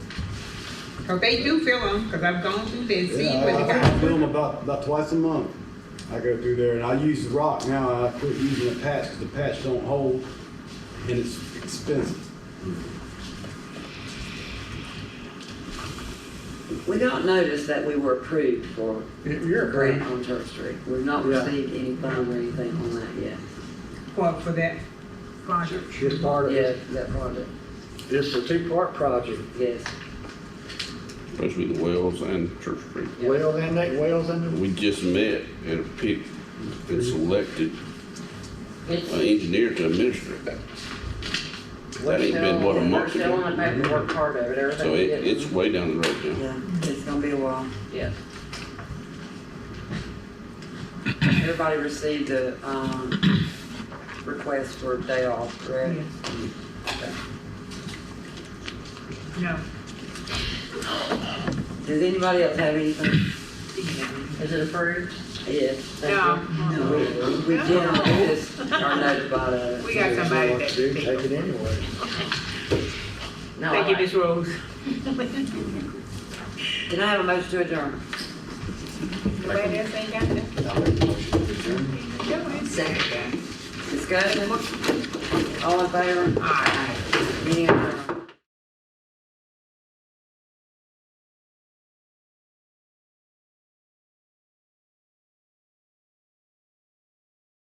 Cause they do fill them, cause I've gone through there and seen Yeah, what they I- I think I got. fill them about, about twice a month. I go through there and I use the rock now. I quit using the patch 'cause the patch don't hold and it's expensive. We got notice that we were approved for You're a grant on Church Street. We've not Yeah. received any fund or anything on that yet. For, for that project. It's part of, Yeah, it. that project, it's a two-part project, yes. supposed to be the Wells and Church Street. Yeah. wells and that, wells and We just met and picked and selected It's- an engineer to administer that. That ain't been, what, a We're month still on ago? the paperwork part of it, everything. So it, it's way down the road now. Yeah, it's gonna be a while. Yes. Everybody received a, um, request for a day off, correct? No. Does anybody else have anything? Is it approved? Yes. thank No. you. We we generally just are notified of We it. got somebody that, Do take thank it anyway. No, I you, like Miss Rose. Can I have a motion to adjourn? Nobody else ain't got that? No, it's- Second. Discussion? All in favor? Aye. Any other?